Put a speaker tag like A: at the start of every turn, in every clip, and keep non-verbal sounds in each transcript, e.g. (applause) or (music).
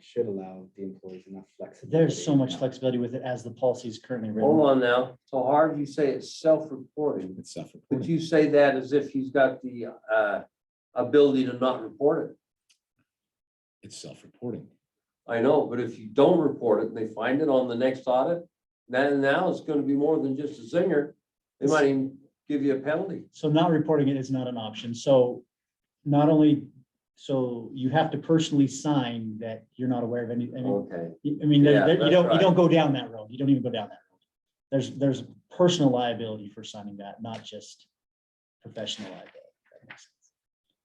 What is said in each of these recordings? A: should allow the employees enough flexibility.
B: There's so much
A: you know.
B: flexibility with it as the policy is currently
C: Hold
B: written.
C: on now. So Harv, you say it's self-reporting.
D: It's self-reported.
C: Would you say that as if he's got the uh ability to not report it?
D: It's self-reporting.
C: I know, but if you don't report it and they find it on the next audit, then now it's gonna be more than just a zinger. They might even give you a penalty.
B: So not reporting it is not an option. So not only, so you have to personally sign that you're not aware of any, I mean,
C: Okay.
B: I mean, there-
C: Oh, Yeah,
B: there- you
C: that's
B: don't, you
C: right.
B: don't go down that road. You don't even go down that road. There's, there's personal liability for signing that, not just professional liability. That makes sense.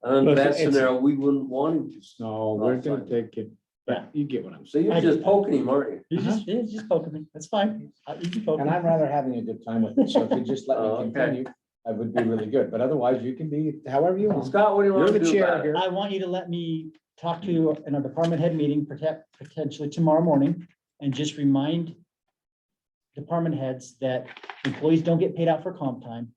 C: And under
D: Well,
C: that
D: it's- it's-
C: scenario, we wouldn't want him to.
D: No, we're gonna
C: Offside.
D: take it, but you get what I'm
C: So
D: saying.
C: you're
B: I-
C: just poking him, aren't you?
B: You just, you just poking me. That's fine. I- you can poke
E: And
B: me.
E: I'm rather having a good time with it, so if you just let
C: Oh,
E: me
C: okay.
E: continue, I would be really good, but otherwise you can be however you want.
C: Scott, what do you
E: You're
C: want
E: the
C: to do
E: chair
C: about it?
E: here.
B: I want you to let me talk to you in a department head meeting, protect, potentially tomorrow morning, and just remind department heads that employees don't get paid out for comp time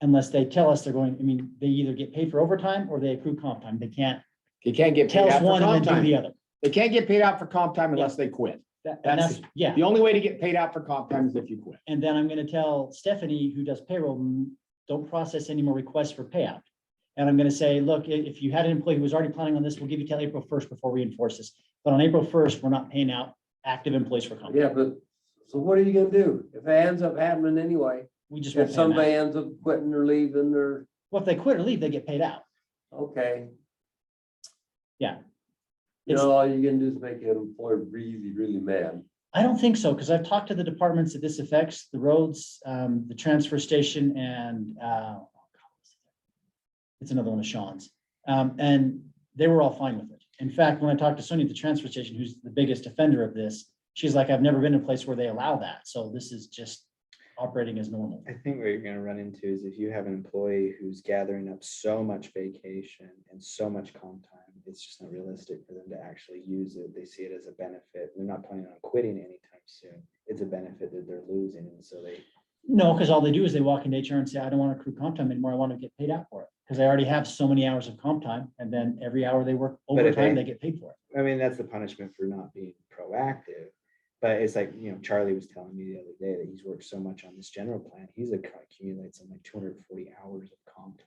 B: unless they tell us they're going, I mean, they either get paid for overtime or they accrue comp time. They can't
E: You can't get paid
B: tell
E: out
B: us
E: for
B: one
E: comp
B: and then do
E: time.
B: the other.
E: They can't get paid out for comp time unless they quit.
B: That- And
E: That's-
B: that's, yeah.
E: The only way to get paid out for comp time is if you quit.
B: And then I'm gonna tell Stephanie, who does payroll, "Mm, don't process any more requests for payout. And I'm gonna say, look, i- if you had an employee who was already planning on this, we'll give you till April first before we enforce this. But on April first, we're not paying out active employees for comp.
C: Yeah, but, so what are you gonna do? If it ends up happening anyway,
B: We just won't
C: if
B: pay them
C: somebody
B: out.
C: ends up quitting or leaving or,
B: Well, if they quit or leave, they get paid out.
C: okay.
B: Yeah.
C: You
B: It's-
C: know, all you're gonna do is make an employer really, really mad.
B: I don't think so, because I've talked to the departments that this affects, the roads, um, the transfer station and, uh, it's another one of Sean's, um, and they were all fine with it. In fact, when I talked to Sonia at the transfer station, who's the biggest offender of this, she's like, I've never been in a place where they allow that, so this is just operating as normal.
A: I think what you're gonna run into is if you have an employee who's gathering up so much vacation and so much comp time, it's just not realistic for them to actually use it. They see it as a benefit. They're not planning on quitting anytime soon. It's a benefit that they're losing, and so they.
B: No, because all they do is they walk into HR and say, I don't want to accrue comp time anymore, I want to get paid out for it, because I already have so many hours of comp time, and then every hour they work
A: But if they-
B: overtime, they get paid for it.
A: I mean, that's the punishment for not being proactive. But it's like, you know, Charlie was telling me the other day that he's worked so much on this general plan, he's acc- accumulates some like two hundred and forty hours of comp time.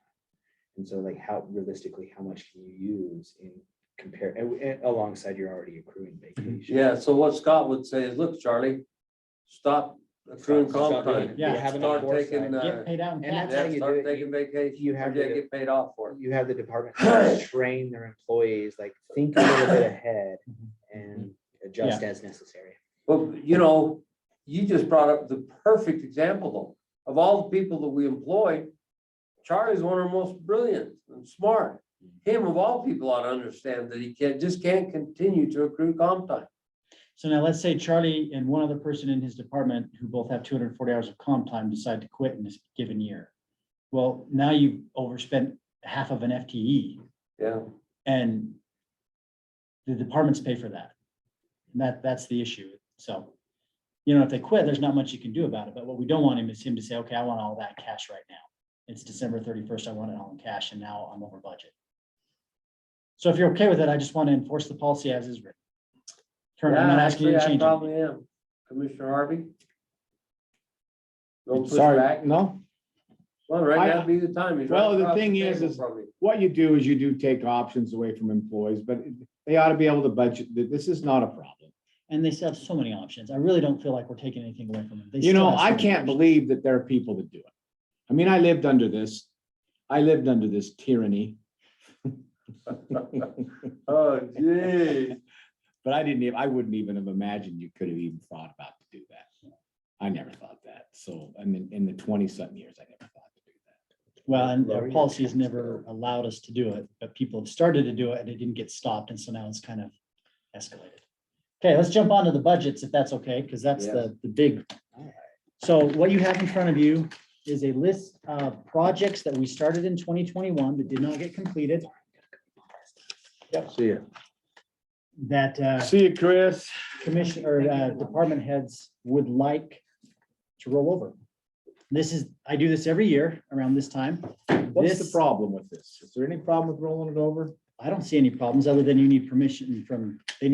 A: And so like how realistically, how much can you use in compare, and w- and alongside you're already accruing vacation?
C: (clears throat) Yeah, so what Scott would say is, look, Charlie, stop accruing comp time.
B: Yeah.
C: Start taking, uh,
B: Get paid out in
A: and
B: tax.
A: that's- how
C: yeah,
A: you do
C: start
A: it.
C: taking vacation.
A: You have
C: or you
A: to-
C: Get paid off for it.
A: You have the
C: (clears throat)
A: department heads train their employees, like think a little bit ahead
C: Mm-hmm.
A: and adjust as necessary.
C: Well, you know, you just brought up the perfect example though. Of all the people that we employ, Charlie's one of our most brilliant and smart. Him of all people ought to understand that he can't, just can't continue to accrue comp time.
B: So now let's say Charlie and one other person in his department who both have two hundred and forty hours of comp time decide to quit in this given year. Well, now you've overspent half of an E. FTE
C: Yeah,
B: and the departments pay for that. And that, that's the issue. So, you know, if they quit, there's not much you can do about it. But what we don't want him is him to say, okay, I want all that cash right now. It's December thirty-first. I want it all in cash and now I'm over budget. So if you're okay with it, I just want to enforce the policy as is written. Turn, I'm
C: yeah,
B: not asking you
C: actually,
B: to
C: I
B: change it.
C: probably am. Commissioner Harvey? No
E: Sorry,
C: pushback?
E: no?
C: Well, right
E: I-
C: now would be the time. He's right
E: Well, the
C: across
E: thing is,
C: table
E: is-
C: from me.
E: What you do is you do take options away from employees, but they ought to be able to budget. that This is not a problem.
B: And they still have so many options. I really don't feel like we're taking anything away from them. They
E: You
B: still
E: know,
B: have so
E: I
B: many
E: can't
B: options.
E: believe that there are people that do it. I mean, I lived under this. I lived under this tyranny. But (laughs)
C: Oh, geez.
E: I didn't, even I wouldn't even have imagined you could have even thought about to do that. I never thought that. So, I mean, in the twenty something years, I never thought to do that.
B: Well, and
A: Lower
B: our
A: your
B: policy has
A: tax
B: never allowed us to do it, but people have started to do it and it didn't get stopped. And so now it's kind of escalated. Okay, let's jump on to the budgets if that's okay, because that's the, the big. So what you have in front of you is a list of projects that we started in twenty twenty-one that did not get completed,
D: See ya.
B: that uh,
D: See you, Chris.
B: commission or uh, department heads would like to roll over. This is, I do this every year around this time.
E: What's the
B: This-
E: problem with this? Is there any problem with rolling it over?
B: I don't see any problems other than you need permission from, they need